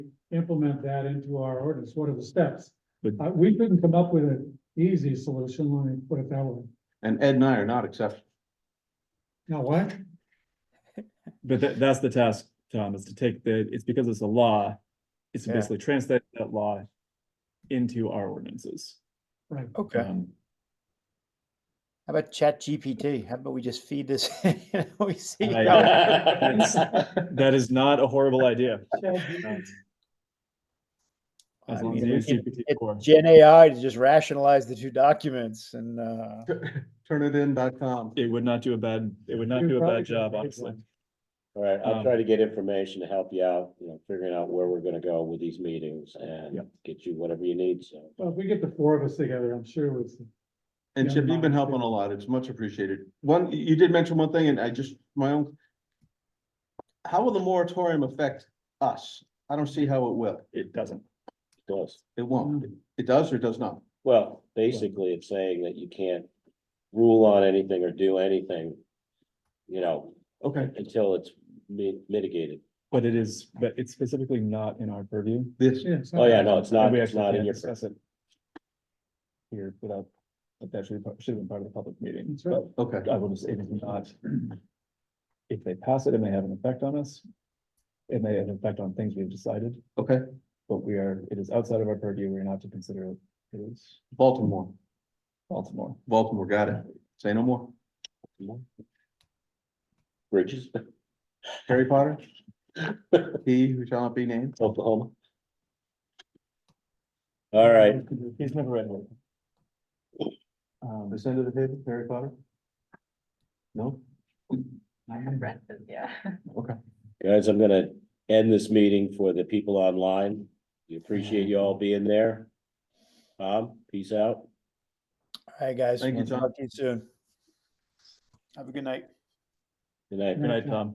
implement that into our ordinance? What are the steps? But- Uh, we couldn't come up with an easy solution, let me put it that way. And Ed and I are not exceptional. Now, what? But that, that's the task, Tom, is to take the, it's because it's a law, it's to Yeah. basically translate that law into our ordinances. Right, Okay. How Um, about Chat GPT? How about we just feed this? you know, we see I- how it- That is not a horrible idea. Um, I As long as mean, you use it- it- GPT-4. Gen AI to just rationalize the two documents and uh, Turnitin.com. It would not do a bad, it would not You do a probably bad job, could make honestly. one. All right, I'll Um, try to get information to help you out, you know, figuring out where we're gonna go with these meetings and Yep. get you whatever you need, so. Well, if we get the four of us together, I'm sure it's, And Chip, you've been helping a lot. It's much appreciated. One, you you did mention one thing and I just, my own. How will the moratorium affect us? I don't see how it will. It doesn't. Does, It won't. It does or does not? well, basically, it's saying that you can't rule on anything or do anything. You know, Okay, until it's mi- mitigated. But it is, but it's specifically not in our purview. this, yeah. it's Oh, not- yeah, no, it's not, And we it's actually not in can't your, discuss it Here without, but that should, be part- should have been part of the public meeting, That's right. but okay. I will just, it is not. If they pass it, it may have an effect on us. It may have an effect on things we've decided, Okay, but we are, it is outside of our purview, we're not to consider it. It is Baltimore, Baltimore. Baltimore, got it. Say no more. bridges, Harry Potter? He who shall not be named? Oklahoma. All right, He's never read one. Um, This end of uh, the table, Harry Potter? No? I have read them, yeah. Okay. Guys, I'm gonna end this meeting for the people online. We appreciate you all being there. Tom, peace out. all right, guys. Thank you, John. Talk to you soon. Have a good night. Good night. Good night, Tom.